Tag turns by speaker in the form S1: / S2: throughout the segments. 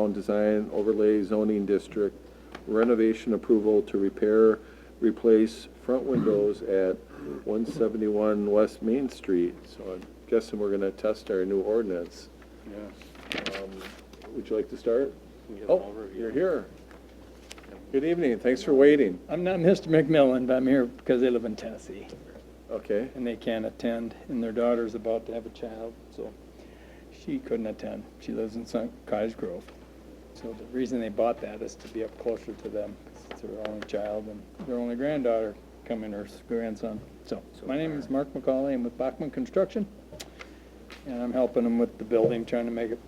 S1: Town Design Overlay Zoning District renovation approval to repair, replace front windows at 171 West Main Street. So I'm guessing we're going to test our new ordinance. Um, Would you like to start? Oh, you're here. Good evening, thanks for waiting.
S2: I'm not Mr. McMillan, but I'm here because they live in Tennessee
S1: Okay,
S2: and they can't attend, and their daughter's about to have a child, so she couldn't attend. She lives in Sun Cottage Grove. So the reason they bought that is to be up closer to them. 'cause It's their only child and their only granddaughter coming, or s- grandson. So, my name is Mark McCauley. I'm with Bachman Construction. And I'm helping them with the building, trying to make it,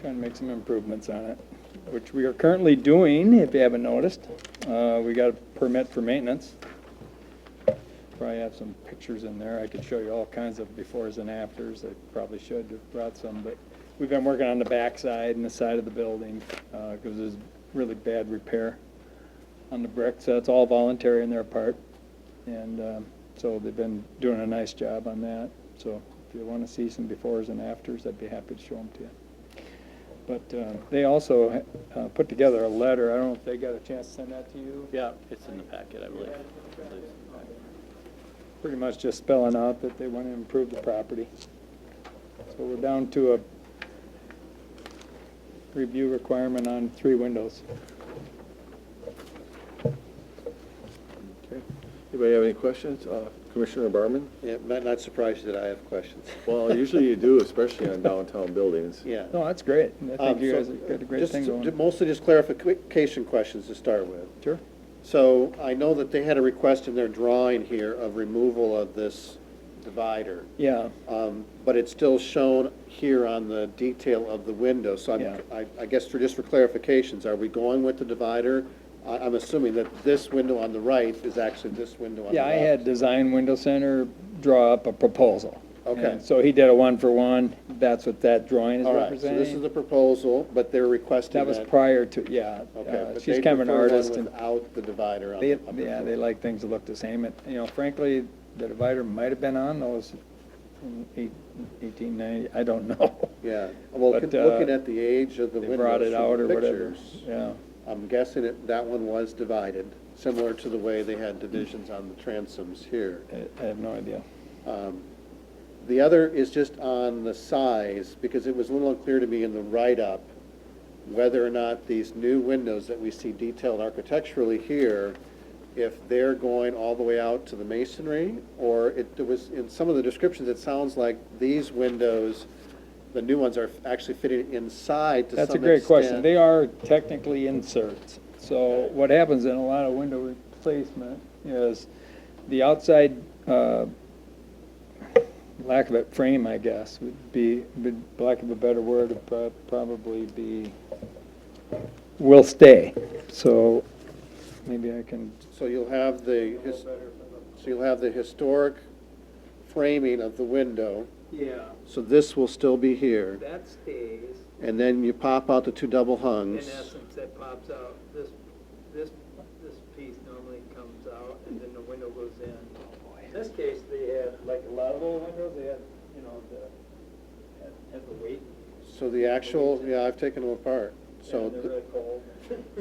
S2: trying to make some improvements on it, which we are currently doing, if you haven't noticed. Uh, we got a permit for maintenance. Probably have some pictures in there. I could show you all kinds of befores and afters. I probably should have brought some, but we've been working on the backside and the side of the building, uh, cause there's really bad repair on the brick, so that's all voluntary on their part. And, um, so they've been doing a nice job on that. So if you wanna see some befores and afters, I'd be happy to show them to you. But, uh, they also, uh, put together a letter. I don't know if they got a chance to send that to you?
S3: Yeah, it's in the packet, I believe.
S2: pretty much just spelling out that they want to improve the property. So we're down to a review requirement on three windows.
S1: okay. Anybody have any questions? Uh, Commissioner Barman?
S4: Yeah, not, not surprised that I have questions.
S1: Well, usually you do, especially on downtown buildings.
S4: Yeah.
S2: No, that's great. I
S4: Um,
S2: think you
S4: so
S2: guys have got a great
S4: just-
S2: thing going.
S4: Mostly just clarification questions to start with.
S2: Sure.
S4: So I know that they had a request in their drawing here of removal of this divider,
S2: Yeah,
S4: um, but it's still shown here on the detail of the window. So
S2: Yeah.
S4: I'm- I, I guess for, just for clarifications, are we going with the divider? I, I'm assuming that this window on the right is actually this window on the
S2: yeah,
S4: left.
S2: I had Design Window Center draw up a proposal.
S4: Okay.
S2: And So he did a one-for-one. That's what that drawing is
S4: All right, so this is
S2: representing.
S4: the proposal, but they're requesting
S2: That
S4: that.
S2: was prior to, yeah.
S4: Okay,
S2: uh,
S4: but
S2: She's
S4: they
S2: kind of an
S4: prefer one
S2: artist and.
S4: Without the divider on the
S2: They,
S4: upper
S2: yeah,
S4: floor.
S2: they like things to look the same. It- You know, frankly, the divider might have been on those in eight- 1890, I don't know.
S4: Yeah, well,
S2: But,
S4: con-
S2: uh,
S4: looking at the age of the
S2: They brought it
S4: windows
S2: out
S4: from
S2: or
S4: the
S2: whatever.
S4: pictures,
S2: Yeah,
S4: I'm guessing it, that one was divided, similar to the way they had divisions on the transoms here.
S2: I I have no idea.
S4: Um, The other is just on the size, because it was a little unclear to me in the write-up whether or not these new windows that we see detailed architecturally here, if they're going all the way out to the masonry, or it it was, in some of the descriptions, it sounds like these windows, the new ones are actually fitted inside to some extent.
S2: That's a great question. They are technically inserts. So what happens in a lot of window replacement is the outside, uh, lack of a frame, I guess, would be, would- lack of a better word, would prob- probably be, will stay. So maybe I can,
S4: So you'll have the, his- so you'll have the historic framing of the window,
S5: Yeah,
S4: so this will still be here.
S5: that stays,
S4: And then you pop out the two double
S5: in
S4: hungs.
S5: essence, that pops out, this, this, this piece normally comes out, and then the window goes in. In this case, they had, like a lot of old windows, they had, you know, the, had, had the weight,
S4: So the actual, yeah, I've taken them apart. So,
S5: and they're really
S4: the-
S5: cold.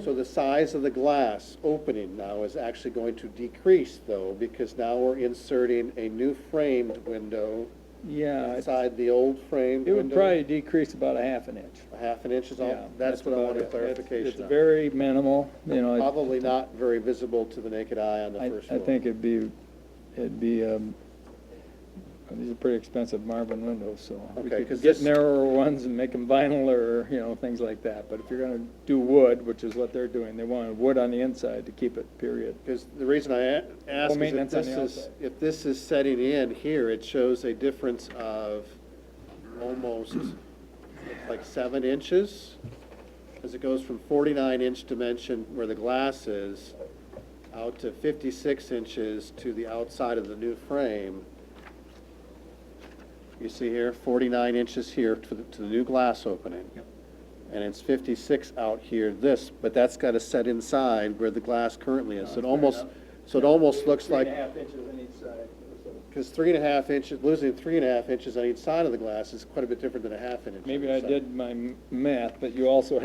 S4: so the size of the glass opening now is actually going to decrease though, because now we're inserting a new framed window
S2: yeah, it-
S4: inside the old framed
S2: it would
S4: window.
S2: probably decrease about a half an inch.
S4: A Half an inch is
S2: Yeah,
S4: all, that's what I
S2: about
S4: wanted
S2: it. It's- It's
S4: clarification on.
S2: very minimal, you know. it-
S4: Probably not very visible to the naked eye on the
S2: I,
S4: first
S2: I
S4: floor.
S2: think it'd be, it'd be, um, these are pretty expensive Marvin windows, so. we
S4: Okay,
S2: could
S4: 'cause
S2: Get
S4: this-
S2: narrower ones and make them vinyl or, you know, things like that, but if you're gonna do wood, which is what they're doing, they want wood on the inside to keep it, period.
S4: Because the reason I a- ask is if
S2: maintenance on
S4: this
S2: the
S4: is,
S2: outside.
S4: if this is setting in here, it shows a difference of almost like seven inches. As it goes from forty-nine inch dimension where the glass is, out to fifty-six inches to the outside of the new frame. You see here, forty-nine inches here to the, to the new glass opening. And it's fifty-six out here, this, but that's gotta set inside where the glass currently
S2: Oh,
S4: is. So it almost, so it almost looks like,
S2: half inches on each side.
S4: because three and a half inches, losing three and a half inches on each side of the glass is quite a bit different than a half an inch. on
S2: Maybe
S4: each
S2: I
S4: side.
S2: did my m- math, but you also